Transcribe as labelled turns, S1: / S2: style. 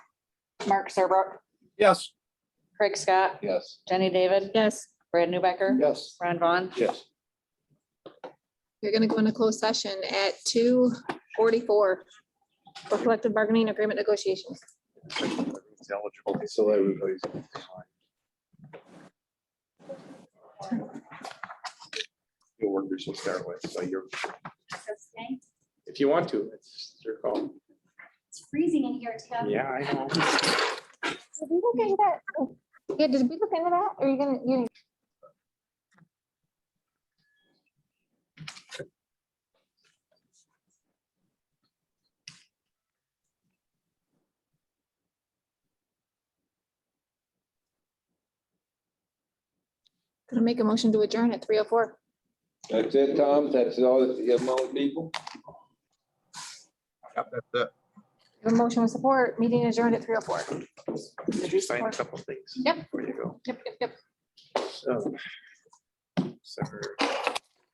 S1: Mark Serbrook,
S2: Yes.
S1: Craig Scott,
S2: Yes.
S1: Jenny David,
S3: Yes,
S1: Brad Newbecker,
S2: Yes.
S1: Ron Vaughn.
S2: Yes.
S4: You're gonna go into closed session at two forty-four for collective bargaining agreement negotiations.
S2: Eligible. So everybody's. Your workers will start with, so you're,
S5: So today,
S2: if you want to, it's your call.
S5: it's freezing in here, Tim.
S2: Yeah, I know.
S4: Did we look into that? Yeah, did we look into that? Are you gonna, you? Gonna make a motion to adjourn at three oh four.
S6: That's it, Tom? That's all, that you have more people?
S7: Yep, that's
S2: uh,
S7: it.
S4: A motion with support, meeting adjourned at three oh four.
S2: Did you sign a couple things?
S4: Yep.
S2: Before you go.
S4: Yep, yep, yep.
S2: So. so-